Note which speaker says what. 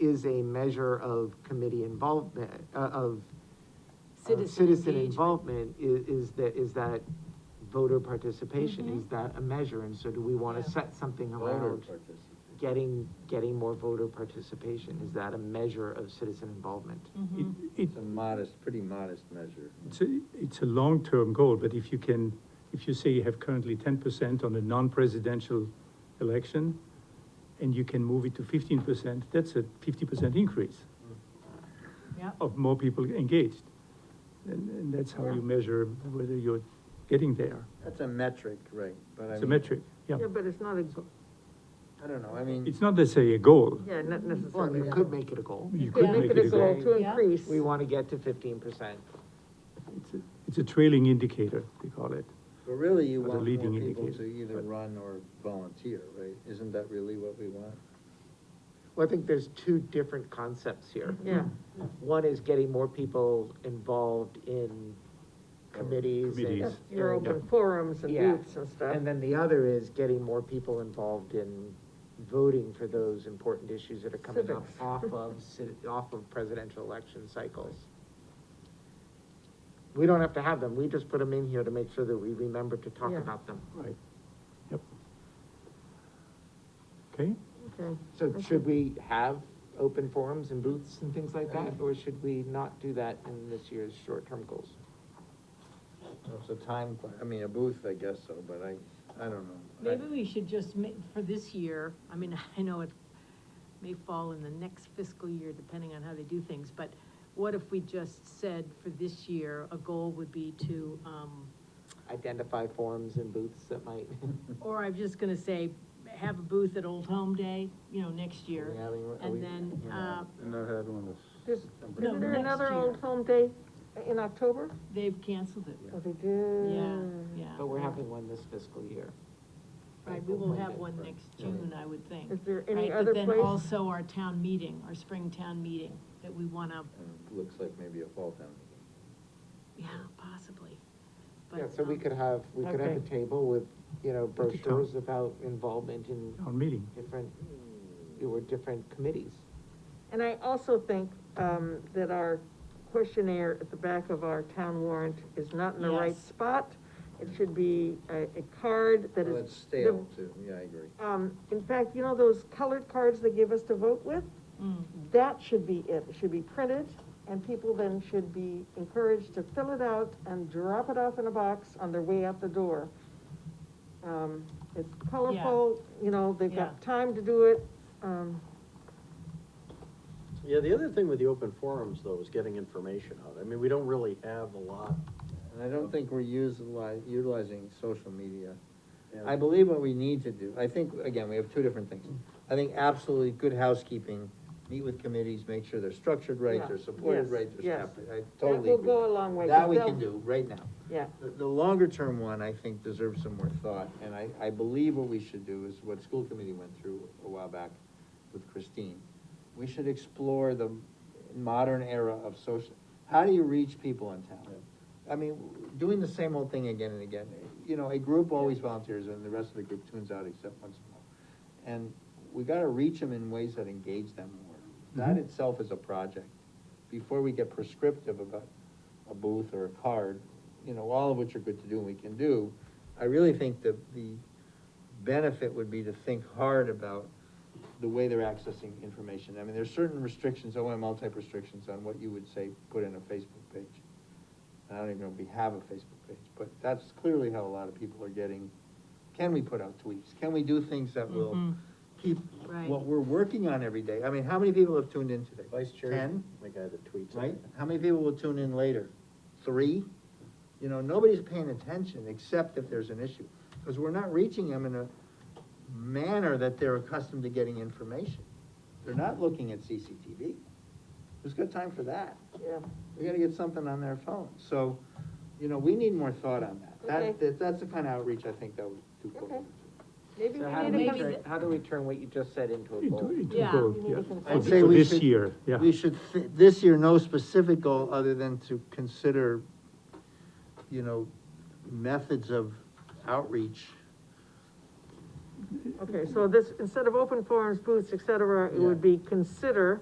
Speaker 1: is a measure of committee involvement, uh, of uh,
Speaker 2: Citizen
Speaker 1: citizen
Speaker 2: engagement.
Speaker 1: involvement, is, is that, is that voter participation,
Speaker 2: Mhm.
Speaker 1: is that a measure? And so do we wanna
Speaker 2: Yeah.
Speaker 1: set something
Speaker 3: Voter
Speaker 1: around
Speaker 3: participation.
Speaker 1: getting, getting more voter participation? Is that a measure of citizen involvement?
Speaker 2: Mhm.
Speaker 4: It, it,
Speaker 3: It's a modest, pretty modest measure.
Speaker 4: it's a, it's a long-term goal, but if you can, if you say you have currently ten percent on a non-presidential election, and you can move it to fifteen percent, that's a fifty percent increase
Speaker 2: Yep.
Speaker 1: oh,
Speaker 4: of more people engaged. And, and that's how you measure whether you're getting there.
Speaker 3: That's a metric, right, but I mean.
Speaker 4: It's a metric, yeah.
Speaker 5: Yeah, but it's not a, go-
Speaker 3: I don't know, I mean.
Speaker 4: It's not necessarily a goal.
Speaker 5: yeah, not
Speaker 1: Well,
Speaker 5: necessarily.
Speaker 1: you
Speaker 5: a
Speaker 1: could
Speaker 5: goal.
Speaker 1: make it a goal.
Speaker 4: You
Speaker 5: You
Speaker 4: could
Speaker 5: could make it a goal to
Speaker 2: Yeah.
Speaker 5: increase.
Speaker 1: We wanna get to fifteen percent.
Speaker 4: It's a, it's a trailing indicator, they call it.
Speaker 3: But really, you
Speaker 4: Or the
Speaker 3: want more
Speaker 4: leading
Speaker 3: people to
Speaker 4: indicator,
Speaker 3: either
Speaker 4: but-
Speaker 3: run or volunteer, right? Isn't that really what we want?
Speaker 1: Well, I think there's two different concepts here.
Speaker 5: Yeah,
Speaker 1: One is getting more people involved in committees and.
Speaker 4: Committees.
Speaker 5: your
Speaker 1: and-
Speaker 5: open forums and
Speaker 1: oh, Yeah.
Speaker 5: groups and stuff.
Speaker 1: And then the other is getting more people involved in voting for those important issues that are coming up
Speaker 5: Civics.
Speaker 1: off of, ci- off of presidential election cycles. We don't have to have them, we just put them in here to make sure that we remember to talk
Speaker 5: Yeah.
Speaker 1: about them.
Speaker 4: Right. Yep. Okay?
Speaker 5: Okay.
Speaker 1: So should we have open forums and booths and things like that,
Speaker 2: Mm-hmm.
Speaker 1: or should we not do that in this year's short-term goals?
Speaker 3: It's a time, que- I mean, a booth, I guess so, but I, I don't know. I-
Speaker 2: Maybe we should just make, for this year, I mean, I know it may fall in the next fiscal year, depending on how they do things, but what if we just said for this year, a goal would be to, um,
Speaker 1: Identify forums and booths that might.
Speaker 2: or I'm just gonna say, have a booth at Old Home Day, you know, next year.
Speaker 3: Yeah, I mean, are
Speaker 2: And
Speaker 3: we-
Speaker 2: then,
Speaker 3: you know,
Speaker 2: uh,
Speaker 3: Not had one this.
Speaker 5: There's-
Speaker 2: No,
Speaker 5: Isn't there
Speaker 2: next
Speaker 5: another
Speaker 2: year.
Speaker 5: old home day in October?
Speaker 2: They've canceled it.
Speaker 5: Oh, they
Speaker 2: Yeah,
Speaker 5: do.
Speaker 2: yeah.
Speaker 1: But we're having one this fiscal year.
Speaker 2: Right, we will have one next June, I would think.
Speaker 5: Is there any
Speaker 2: Right,
Speaker 5: other
Speaker 2: But
Speaker 5: place?
Speaker 2: then also our town meeting, our spring town meeting, that we wanna,
Speaker 3: And Looks like maybe a fall town meeting.
Speaker 2: yeah, possibly.
Speaker 1: Yeah,
Speaker 2: But,
Speaker 1: so we
Speaker 2: um,
Speaker 1: could have, we could have a
Speaker 5: Okay.
Speaker 1: table with, you know,
Speaker 4: could talk.
Speaker 1: brochures about involvement in
Speaker 4: Our meeting.
Speaker 1: different, or different committees.
Speaker 5: And I also think, um, that our questionnaire at the back of our town warrant is not in the right
Speaker 2: Yes.
Speaker 5: spot. It should be a, a card that is.
Speaker 3: Well, Oh, it's stale too, yeah, I agree.
Speaker 5: Um, in fact, you know those colored cards they give us to vote with?
Speaker 2: Mm.
Speaker 5: That should be it, it should be printed, and people then should be encouraged to fill it out and drop it off in a box on their way out the door. Um, it's colorful, you know, they've got
Speaker 2: Yeah.
Speaker 5: time to do it, um,
Speaker 6: Yeah, the other thing with the open forums, though, is getting information out. I mean, we don't really have a lot.
Speaker 3: And I don't think we're utilizing, utilizing social media.
Speaker 6: Yeah.
Speaker 3: I believe what we need to do, I think, again, we have two different things. I think absolutely good housekeeping, meet with committees, make sure they're structured right,
Speaker 5: Yeah.
Speaker 3: they're supported
Speaker 5: Yes,
Speaker 3: right, they're
Speaker 5: yes.
Speaker 3: staffed. right. I
Speaker 5: that
Speaker 3: totally
Speaker 5: will
Speaker 3: agree.
Speaker 5: go a long way.
Speaker 3: That we
Speaker 5: 'cause
Speaker 3: can
Speaker 5: they'll-
Speaker 3: do right now.
Speaker 5: Yeah,
Speaker 3: The, the longer term one, I think, deserves some more thought, and I, I believe what we should do is what school committee went through a while back with Christine. We should explore the modern era of social, how do you reach people in town? I mean, doing the same old thing again and again, you know, a group always volunteers and the rest of the group tunes out except once in a while. And we gotta reach them in ways that engage them more. That
Speaker 4: Mhm.
Speaker 3: itself is a project. Before we get prescriptive about a booth or a card, you know, all of which are good to do and we can do, I really think that the benefit would be to think hard about the way they're accessing information. I mean, there's certain restrictions, OML type restrictions on what you would say, put in a Facebook page. And I don't even know if we have a Facebook page, but that's clearly how a lot of people are getting, can we put out tweets? Can we do things that will
Speaker 2: Mhm.
Speaker 3: keep
Speaker 2: Right.
Speaker 3: what we're working on every day? I mean, how many people have tuned in today?
Speaker 6: Vice chair,
Speaker 3: Ten?
Speaker 6: the guy that tweets.
Speaker 3: right? How many people will tune in later? Three? You know, nobody's paying attention except if there's an issue, because we're not reaching them in a manner that they're accustomed to getting information. They're not looking at CCTV. Who's got time for that?
Speaker 5: yeah,
Speaker 3: We gotta get something on their phone, so, you know, we need more thought on that.
Speaker 5: Okay.
Speaker 3: That, that, that's the kind of outreach I think that would do. good.
Speaker 5: Okay. maybe
Speaker 1: So
Speaker 5: we
Speaker 1: how do
Speaker 5: need
Speaker 1: we
Speaker 5: to
Speaker 2: maybe
Speaker 5: come,
Speaker 1: turn, how do we turn what you just said into a
Speaker 4: Into,
Speaker 1: goal?
Speaker 4: into
Speaker 2: Yeah.
Speaker 4: goal,
Speaker 5: You need
Speaker 4: yeah.
Speaker 5: to consider-
Speaker 4: For
Speaker 3: I'd say we
Speaker 4: this
Speaker 3: should-
Speaker 4: year, yeah.
Speaker 3: We should, thi- this year, no specific goal other than to consider, you know, methods of outreach
Speaker 5: Okay, so this, instead of open forums, booths, et cetera, it would be consider